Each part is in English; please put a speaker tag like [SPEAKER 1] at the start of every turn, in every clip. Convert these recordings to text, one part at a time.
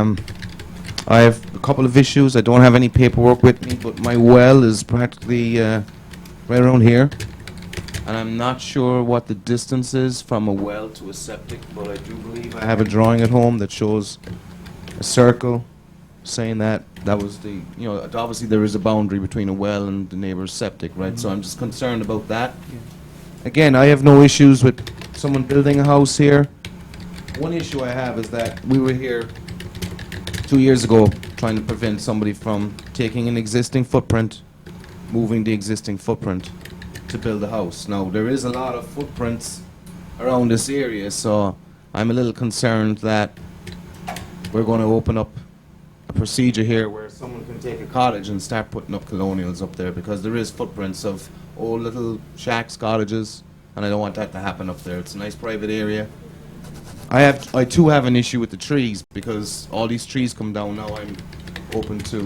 [SPEAKER 1] Um, I have a couple of issues. I don't have any paperwork with me, but my well is practically uh, right around here. And I'm not sure what the distance is from a well to a septic, but I do believe I have a drawing at home that shows a circle saying that that was the, you know, obviously there is a boundary between a well and the neighbor's septic, right? So I'm just concerned about that. Again, I have no issues with someone building a house here. One issue I have is that we were here two years ago trying to prevent somebody from taking an existing footprint, moving the existing footprint to build a house. Now, there is a lot of footprints around this area, so I'm a little concerned that we're going to open up a procedure here where someone can take a cottage and start putting up colonials up there because there is footprints of old little shacks, cottages, and I don't want that to happen up there. It's a nice private area. I have, I too have an issue with the trees because all these trees come down now. I'm open to,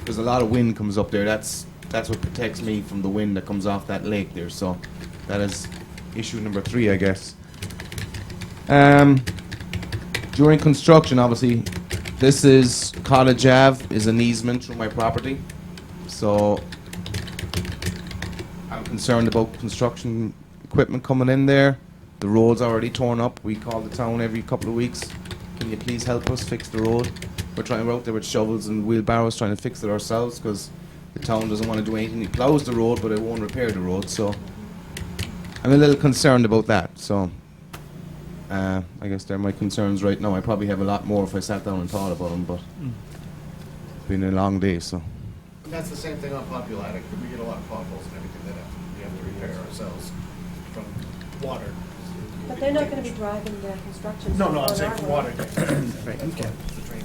[SPEAKER 1] because a lot of wind comes up there. That's that's what protects me from the wind that comes off that lake there. So that is issue number three, I guess. Um, during construction, obviously, this is Cottage Ave is an easement through my property, so I'm concerned about construction equipment coming in there. The road's already torn up. We call the town every couple of weeks. Can you please help us fix the road? We're trying, we're out there with shovels and wheelbarrows trying to fix it ourselves because the town doesn't want to do anything. It plows the road, but it won't repair the road, so I'm a little concerned about that, so. Uh, I guess they're my concerns right now. I probably have a lot more if I sat down and thought about them, but it's been a long day, so.
[SPEAKER 2] And That's the same thing on Populatic, we get a lot of potholes and everything that we have to repair ourselves from water.
[SPEAKER 3] But they're not gonna be driving the construction.
[SPEAKER 2] No, no,
[SPEAKER 3] on
[SPEAKER 2] I'm saying
[SPEAKER 3] our
[SPEAKER 2] from
[SPEAKER 3] road.
[SPEAKER 2] water.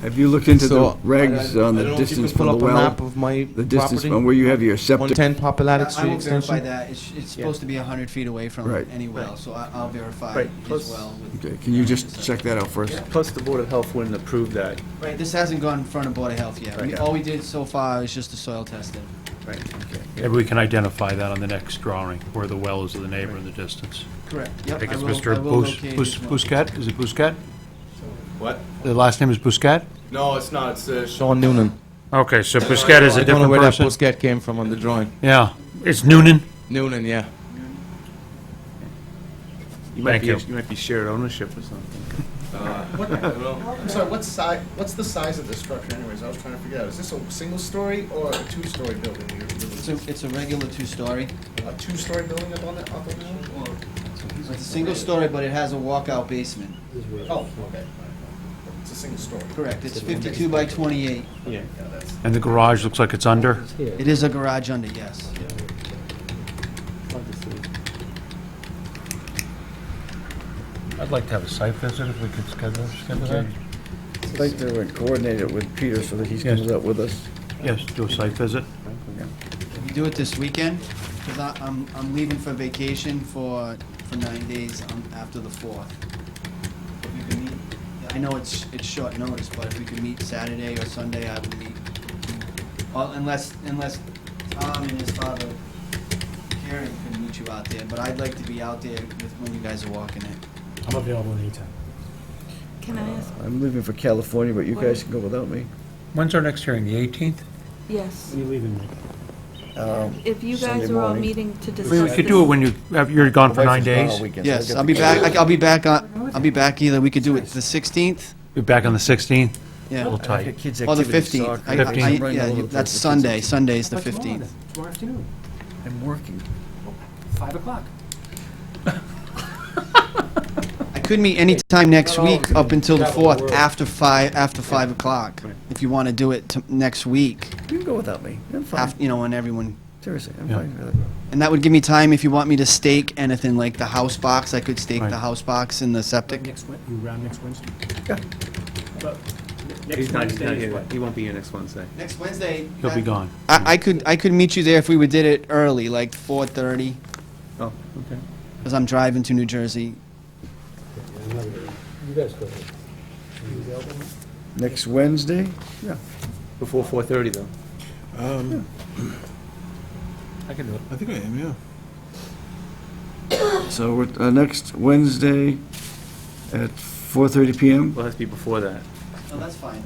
[SPEAKER 4] Have you looked into the
[SPEAKER 1] So, I-
[SPEAKER 4] regs
[SPEAKER 1] I don't
[SPEAKER 4] on
[SPEAKER 1] know
[SPEAKER 4] the
[SPEAKER 1] if you
[SPEAKER 4] distance
[SPEAKER 1] could pull
[SPEAKER 4] from the
[SPEAKER 1] up a map
[SPEAKER 4] well?
[SPEAKER 1] of my
[SPEAKER 4] The distance
[SPEAKER 1] property?
[SPEAKER 4] from where you have your septic?
[SPEAKER 1] 110 Populatic
[SPEAKER 5] I
[SPEAKER 1] Street
[SPEAKER 5] will verify
[SPEAKER 1] extension?
[SPEAKER 5] that. It's, it's supposed to be 100 feet away from
[SPEAKER 4] Right.
[SPEAKER 5] any well, so I- I'll verify
[SPEAKER 6] Right,
[SPEAKER 5] as
[SPEAKER 6] plus-
[SPEAKER 5] well. with-
[SPEAKER 4] Okay, can you just check that out first?
[SPEAKER 6] Plus, the Board of Health wouldn't approve that.
[SPEAKER 5] Right, this hasn't gone in front of Board of Health yet. We-
[SPEAKER 6] Right.
[SPEAKER 5] All we did so far is just the soil testing.
[SPEAKER 6] Right.
[SPEAKER 7] Maybe we can identify that on the next drawing, where the well is of the neighbor in the distance.
[SPEAKER 5] Correct.
[SPEAKER 7] I
[SPEAKER 5] Yep,
[SPEAKER 7] think
[SPEAKER 5] I
[SPEAKER 7] it's
[SPEAKER 5] will,
[SPEAKER 7] Mr.
[SPEAKER 5] I will
[SPEAKER 7] Bus-
[SPEAKER 5] locate
[SPEAKER 7] Bus-
[SPEAKER 5] as well.
[SPEAKER 7] Buscat, is it Buscat?
[SPEAKER 1] What?
[SPEAKER 7] The last name is Buscat?
[SPEAKER 1] No, it's not, it's uh, Sean Noonan.
[SPEAKER 7] Okay, so Buscat is a
[SPEAKER 1] I don't know
[SPEAKER 7] different
[SPEAKER 1] where that
[SPEAKER 7] person?
[SPEAKER 1] Busquet came from on the drawing.
[SPEAKER 7] Yeah, it's Noonan?
[SPEAKER 1] Noonan, yeah.
[SPEAKER 6] You might
[SPEAKER 7] Thank
[SPEAKER 6] be,
[SPEAKER 7] you.
[SPEAKER 6] you might be shared ownership or something.
[SPEAKER 2] I'm sorry, what's si, what's the size of this structure anyways, I was trying to figure out, is this a single story or a two-story building? You're-
[SPEAKER 5] It's
[SPEAKER 2] you're-
[SPEAKER 5] a, it's a regular two-story.
[SPEAKER 2] A two-story building up on the, up on the hill?
[SPEAKER 5] It's a single story, but it has a walkout basement.
[SPEAKER 2] Oh, okay. It's a single story.
[SPEAKER 5] Correct. It's 52 by 28.
[SPEAKER 6] Yeah.
[SPEAKER 2] Yeah, that's,
[SPEAKER 7] And the garage looks like it's under?
[SPEAKER 5] It is a garage under, yes.
[SPEAKER 7] I'd like to have a site visit if we could schedule, schedule that.
[SPEAKER 4] I'd like to coordinate it with Peter so that he
[SPEAKER 7] comes
[SPEAKER 4] up with us.
[SPEAKER 7] Yes, do a site visit.
[SPEAKER 5] Can we do it this weekend? Because I'm, I'm leaving for vacation for, for nine days um, after the 4th. If you can meet, I know it's, it's short notice, but if we can meet Saturday or Sunday, I would meet. Well, unless, unless Tom and his father, Karen, can meet you out there, but I'd like to be out there with, when you guys are walking it.
[SPEAKER 7] I'm available anytime.
[SPEAKER 8] Can I ask?
[SPEAKER 4] I'm leaving for California, but you
[SPEAKER 8] guys
[SPEAKER 4] can go without me.
[SPEAKER 7] When's our next hearing, the 18th?
[SPEAKER 8] Yes.
[SPEAKER 9] You leaving me?
[SPEAKER 8] If you guys
[SPEAKER 4] Um, Sunday
[SPEAKER 8] are all
[SPEAKER 4] morning.
[SPEAKER 8] meeting to discuss
[SPEAKER 7] We
[SPEAKER 8] this.
[SPEAKER 7] we could do it when you, have- you're gone for nine
[SPEAKER 4] Oh,
[SPEAKER 7] days.
[SPEAKER 5] Yes, I'll be back, I'll be back, on- I'll be back either, we could do it the 16th,
[SPEAKER 7] Be back on the 16th, a
[SPEAKER 5] yeah,
[SPEAKER 7] little tight.
[SPEAKER 5] or the 15th. I- I- I-
[SPEAKER 7] 15th.
[SPEAKER 5] Yeah, you- that's Sunday, Sunday's the 15th.
[SPEAKER 9] Tomorrow afternoon,
[SPEAKER 4] I'm working.
[SPEAKER 9] 5 o'clock.
[SPEAKER 5] I could meet any time next week up until the 4th, after 5, after 5 o'clock, if you want to do it to- next week,
[SPEAKER 4] You can go without me. I'm
[SPEAKER 5] af- you know, when everyone,
[SPEAKER 4] Seriously, I'm
[SPEAKER 7] Yeah. fine
[SPEAKER 4] with it.
[SPEAKER 5] and that would give me time, if you want me to stake anything, like the house box, I could stake
[SPEAKER 7] Right.
[SPEAKER 5] the house box in the septic.
[SPEAKER 9] Next, Wed- you around next Wednesday?
[SPEAKER 4] Yeah.
[SPEAKER 9] But
[SPEAKER 6] He's
[SPEAKER 9] Next
[SPEAKER 6] not, he's not
[SPEAKER 9] Wednesday is
[SPEAKER 6] here.
[SPEAKER 9] what?
[SPEAKER 6] He won't be here next Wednesday.
[SPEAKER 5] Next Wednesday.
[SPEAKER 7] He'll be gone.
[SPEAKER 5] I, I could, I could meet you there if we would did it early, like 4:30,
[SPEAKER 6] Oh, okay.
[SPEAKER 5] because I'm driving to New Jersey.
[SPEAKER 4] Next Wednesday? Yeah.
[SPEAKER 6] Before four thirty, though.
[SPEAKER 10] Um,
[SPEAKER 6] I can do it.
[SPEAKER 10] I think I am, yeah.
[SPEAKER 4] So we're, uh, next Wednesday at 4:30 PM?
[SPEAKER 6] Well, it has to be before that.
[SPEAKER 5] No, that's fine.